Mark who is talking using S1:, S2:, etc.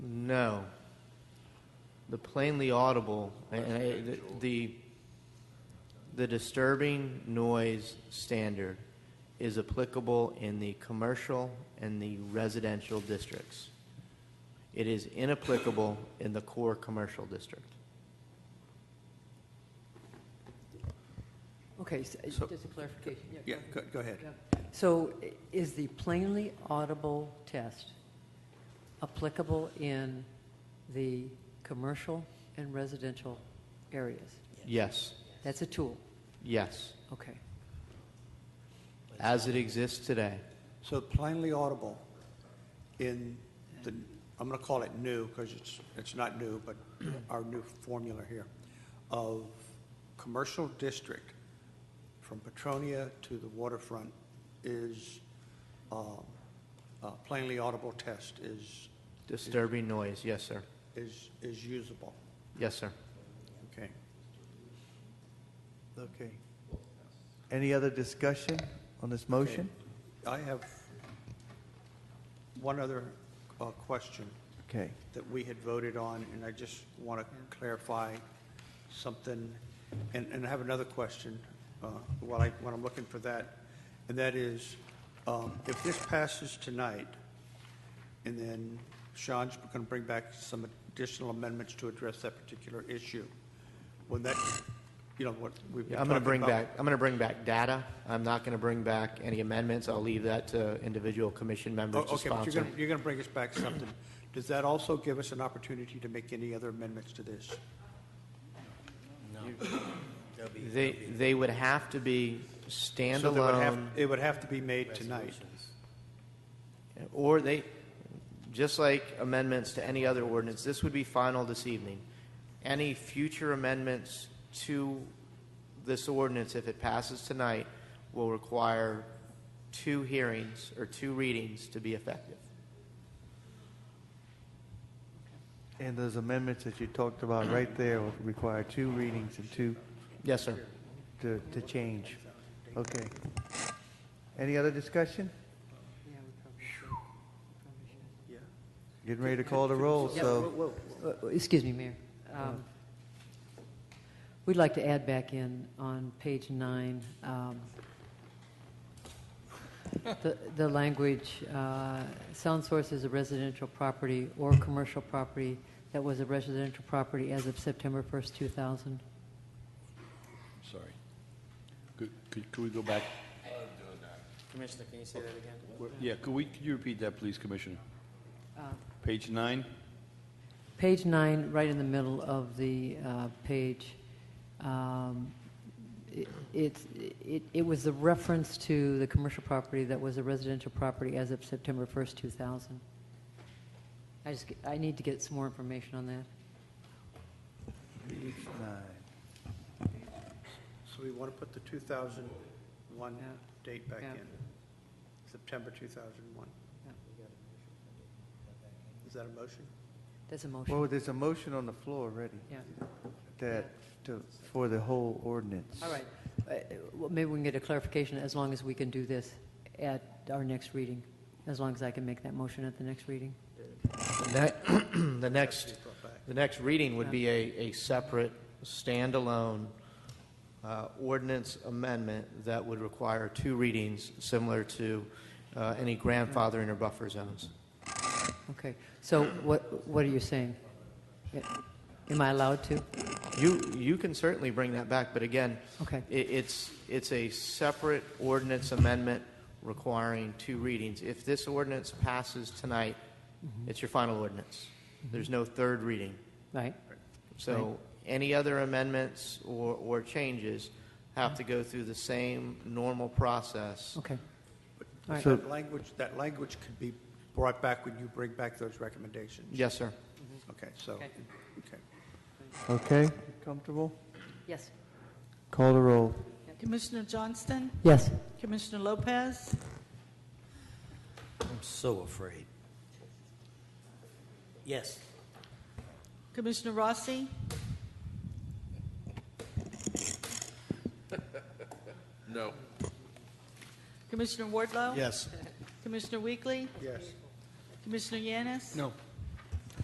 S1: No. The plainly audible, and I, the, the the disturbing noise standard is applicable in the commercial and the residential districts. It is inapplicable in the core commercial district.
S2: Okay, so, uh,
S3: So-
S2: just a clarification.
S3: Yeah,
S2: go
S3: go, go ahead.
S2: ahead. Yeah. So i- is the plainly audible test applicable in the commercial and residential areas?
S1: Yes,
S2: That's a tool,
S1: yes,
S2: okay.
S1: as it exists today.
S3: So plainly audible in the, I'm going to call it new because it's, it's not new, but our new formula here of commercial district from Petronia to the waterfront is, um, uh, plainly audible test is,
S1: Disturbing noise, yes, sir.
S3: is, is usable.
S1: Yes, sir.
S3: Okay.
S4: Okay. Any other discussion on this motion?
S3: I have one other, uh, question.
S4: Okay.
S3: that we had voted on, and I just want to clarify something. And, and I have another question uh, while I, when I'm looking for that. And that is, um, if this passes tonight, and then Sean's going to bring back some additional amendments to address that particular issue, when that, you know, what we've been
S1: I'm going to
S3: talking
S1: bring
S3: about-
S1: back, I'm going to bring back data. I'm not going to bring back any amendments. I'll leave that to individual commission members to
S3: Oh, Okay, but you're
S1: sponsor.
S3: going, to you're going to bring us back something. Does that also give us an opportunity to make any other amendments to this?
S1: They, they would have to be
S3: So there would have-
S1: standalone,
S3: It would have to be made tonight.
S1: or they, just like amendments to any other ordinance, this would be final this evening. Any future amendments to this ordinance, if it passes tonight, will require two hearings or two readings to be effective.
S4: And those amendments that you talked about right there will require two readings and two
S1: Yes, sir.
S4: to, to change. Okay. Any other discussion?
S2: Yeah, we probably should. Probably should.
S4: Getting ready to call the roll,
S2: Yeah,
S4: so,
S2: whoa, whoa, whoa. Uh, Excuse me, Mayor. Um, We'd like to add back in on page nine, um, the, the language, uh, sound source is a residential property or commercial property that was a residential property as of September 1st, 2000.
S5: Sorry. Could, could, could we go back?
S6: Commissioner, can you say that again?
S5: Yeah, could we, could you repeat that, please, Commissioner?
S6: Uh,
S5: Page nine?
S2: Page nine, right in the middle of the uh, page, um, it- it's- it it was the reference to the commercial property that was a residential property as of September 1st, 2000. I just, I need to get some more information on that.
S4: page nine.
S3: So we want to put the 2001
S2: Yeah.
S3: date back
S2: Yeah.
S3: in, September 2001.
S2: Yeah.
S3: Is that a motion?
S2: That's a
S4: Well,
S2: motion.
S4: there's a motion on the floor already
S2: Yeah,
S4: that, to, for the whole ordinance.
S2: all right. Uh, well, Maybe we can get a clarification, as long as we can do this at our next reading, as long as I can make that motion at the next reading.
S1: Ne- The next,
S3: Brought back.
S1: the next reading would be a, a separate, standalone uh, ordinance amendment that would require two readings, similar to uh, any grandfathering or buffer zones.
S2: Okay, so what, what are you saying? Yeah. Am I allowed to?
S1: You, you can certainly bring that back, but again,
S2: Okay.
S1: i- it's, it's a separate ordinance amendment requiring two readings. If this ordinance passes tonight, it's your final ordinance. There's no third reading.
S2: Right,
S1: So any other amendments or, or changes have to go through the same normal process.
S2: okay. All
S3: But
S2: right.
S3: That language, that language could be brought back when you bring back those recommendations.
S1: Yes, sir.
S3: Okay, so,
S2: Okay.
S3: okay.
S4: Okay, comfortable?
S2: Yes.
S4: Call the roll.
S7: Commissioner Johnston,
S2: Yes.
S7: Commissioner Lopez,
S6: I'm so afraid. Yes.
S7: Commissioner Rossi,
S5: No.
S7: Commissioner Wardlow,
S6: Yes.
S7: Commissioner Weekly,
S3: Yes.
S7: Commissioner Yanis,
S6: No.